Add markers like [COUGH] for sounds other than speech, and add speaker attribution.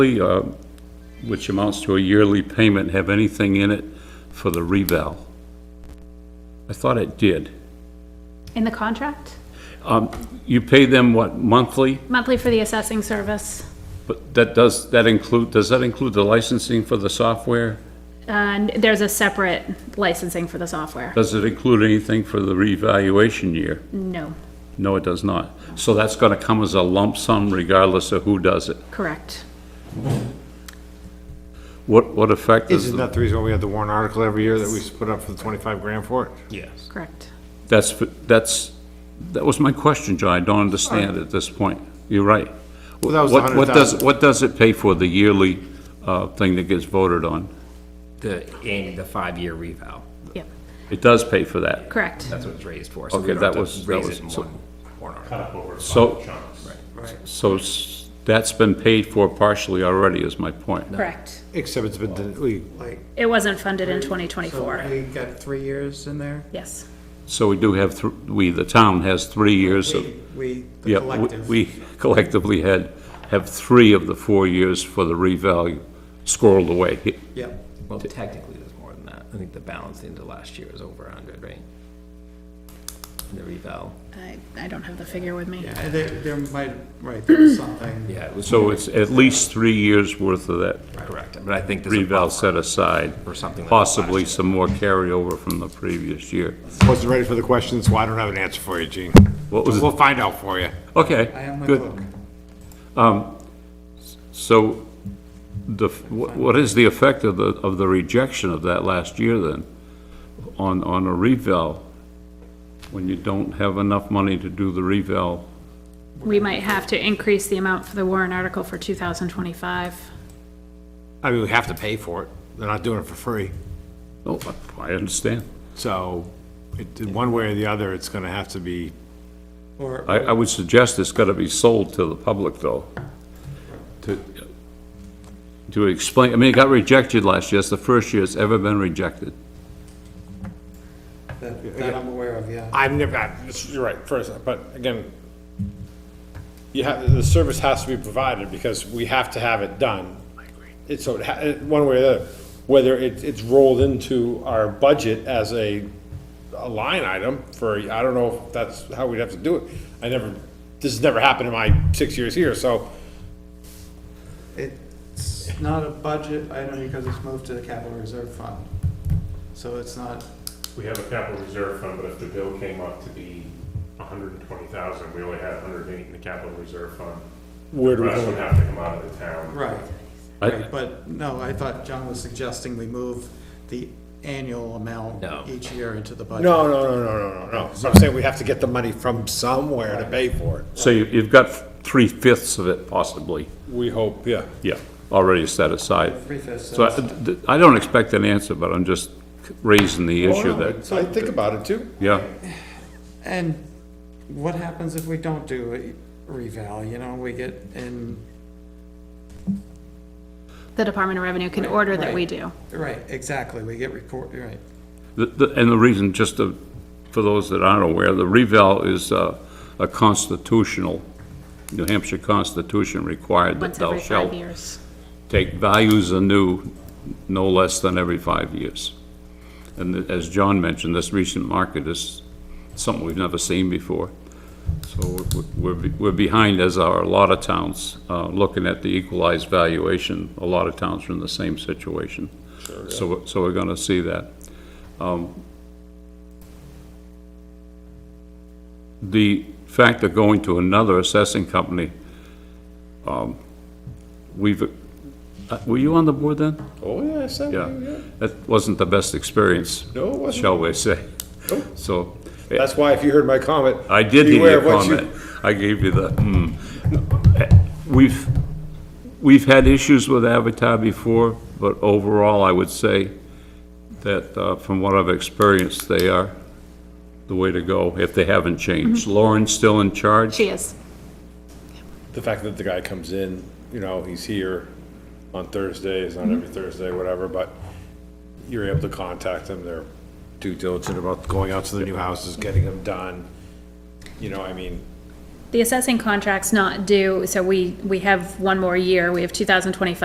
Speaker 1: uh, which amounts to a yearly payment, have anything in it for the reval? I thought it did.
Speaker 2: In the contract?
Speaker 1: Um, You pay them, what, monthly?
Speaker 2: Monthly for the assessing service.
Speaker 1: But that does, that include, does that include the licensing for the software?
Speaker 2: And there's a separate licensing for the software.
Speaker 1: Does it include anything for the revaluation year?
Speaker 2: No,
Speaker 1: No, it does not. So that's gonna come as a lump sum regardless of who does it.
Speaker 2: correct.
Speaker 1: What, what effect does,
Speaker 3: Isn't
Speaker 1: the-
Speaker 3: that the reason why we had the warrant article every year that we put up for the twenty-five grand for it?
Speaker 4: Yes.
Speaker 2: Correct.
Speaker 1: that's, that's, that was my question, John. I don't understand at this point. You're right.
Speaker 3: Well, that was
Speaker 1: What, what does,
Speaker 3: 100,000.
Speaker 1: what does it pay for the yearly, uh, thing that gets voted on?
Speaker 4: The, and the five-year revow,
Speaker 2: Yep,
Speaker 1: It does pay for that.
Speaker 2: correct.
Speaker 4: that's what it's raised for. so we
Speaker 1: Okay,
Speaker 4: don't
Speaker 1: that
Speaker 4: have to
Speaker 1: was- that
Speaker 4: Raise
Speaker 1: was-
Speaker 4: it in
Speaker 1: so- Uh,
Speaker 4: one warrant article.
Speaker 1: So, so s- that's been paid for partially already is my point.
Speaker 2: Correct.
Speaker 3: Except it's been, den- we,
Speaker 5: Like,
Speaker 2: It wasn't funded in
Speaker 5: so
Speaker 2: 2024.
Speaker 5: we got three years in there?
Speaker 2: Yes,
Speaker 1: So we do have, thr- we, the town has three years of,
Speaker 5: We- We, the
Speaker 1: yeah, we-
Speaker 5: collective.
Speaker 1: we collectively had, have three of the four years for the revalue squirreled away.
Speaker 5: Yep.
Speaker 4: Well, technically, there's more than that. I think the balance into last year is over a hundred, right? The revow.
Speaker 2: I, I don't have the figure with me.
Speaker 5: Yeah, there, there might, right, there
Speaker 4: [CLEARS THROAT]
Speaker 5: was something.
Speaker 4: Yeah, it was.
Speaker 1: So it's at least three years' worth of that
Speaker 4: Correct, but I think there's. a
Speaker 1: reval
Speaker 4: buffer.
Speaker 1: set aside.
Speaker 4: Or something like that last
Speaker 1: Possibly
Speaker 4: year.
Speaker 1: some more carryover from the previous year.
Speaker 3: wasn't ready for the question, so I don't have an answer for you, Gene.
Speaker 1: What was it?
Speaker 3: We'll find out for you.
Speaker 1: Okay.
Speaker 5: I am my
Speaker 1: good.
Speaker 5: book.
Speaker 1: So the, wh- what is the effect of the, of the rejection of that last year then? On, on a revale, when you don't have enough money to do the revale?
Speaker 2: We might have to increase the amount for the warrant article for 2025.
Speaker 3: I mean, we have to pay for it. They're not doing it for free.
Speaker 1: Oh, I understand.
Speaker 3: So, it, one way or the other, it's gonna have to be,
Speaker 5: Or,
Speaker 1: I, I would suggest it's gotta be sold to the public though. To, to explain, I mean, it got rejected last year. It's the first year it's ever been rejected.
Speaker 5: that that I'm aware of, yeah.
Speaker 3: I've never, I- you're right, first, but again, you have, the service has to be provided because we have to have it done. It's, so, it ha- it- one way or the other, whether it, it's rolled into our budget as a, a line item for, I don't know if that's how we'd have to do it. I never, this has never happened in my six years here, so
Speaker 5: It's not a budget item because it's moved to the capital reserve fund. So it's not,
Speaker 6: We have a capital reserve fund, but if the bill came up to be hundred and twenty thousand, we only had hundred and eight in the capital reserve fund.
Speaker 3: where do
Speaker 6: The
Speaker 3: we
Speaker 6: rest would
Speaker 3: go?
Speaker 6: have to come out of the town.
Speaker 5: right,
Speaker 1: I,
Speaker 5: but no, I thought John was suggesting we move the annual amount
Speaker 4: No.
Speaker 5: each year into the budget.
Speaker 7: No, no, no, no, no, no, no. So I'm saying we have to get the money from somewhere to pay for it.
Speaker 1: so you- you've got three fifths of it possibly,
Speaker 3: We hope, yeah.
Speaker 1: yeah, already set aside.
Speaker 5: Three-fifths.
Speaker 1: So I, th- th- I don't expect an answer, but I'm just raising the
Speaker 3: Oh,
Speaker 1: issue that,
Speaker 7: So I think about it too.
Speaker 1: yeah,
Speaker 5: And what happens if we don't do a reval, you know, we get in,
Speaker 2: The Department of Revenue can order that we do.
Speaker 5: right, exactly, we get report, right.
Speaker 1: The- the- and the reason, just to, for those that aren't aware, the revale is uh, a constitutional, New Hampshire Constitution required that
Speaker 2: Once
Speaker 1: thou
Speaker 2: every five
Speaker 1: shalt
Speaker 2: years.
Speaker 1: take values anew no less than every five years. And th- as John mentioned, this recent market is something we've never seen before. So we're- we're, be- we're behind, as are a lot of towns, uh, looking at the equalized valuation. A lot of towns are in the same situation. So, we're- so we're gonna see that. Um, The fact of going to another assessing company, um, we've, uh, were you on the board then?
Speaker 3: Oh, yeah, I said,
Speaker 1: Yeah,
Speaker 3: yeah.
Speaker 1: that wasn't the best experience,
Speaker 3: No, it wasn't.
Speaker 1: shall we say. So, eh,
Speaker 3: That's why if you heard my comment.
Speaker 1: I did hear
Speaker 3: beware
Speaker 1: your
Speaker 3: of what you-
Speaker 1: comment. I gave you the, hmm. Eh, We've, we've had issues with Avatar before, but overall, I would say that uh, from what I've experienced, they are the way to go, if they haven't changed.
Speaker 3: Mm-hmm.
Speaker 1: Lauren's still in charge?
Speaker 2: She is.
Speaker 3: the fact that the guy comes in, you know, he's here on Thursdays, not
Speaker 1: Mm-hmm.
Speaker 3: every Thursday, whatever, but you're able to contact them, they're due diligent about going out to the new houses, getting them done. You know, I mean,
Speaker 2: The assessing contract's not due, so we, we have one more year. We have 2025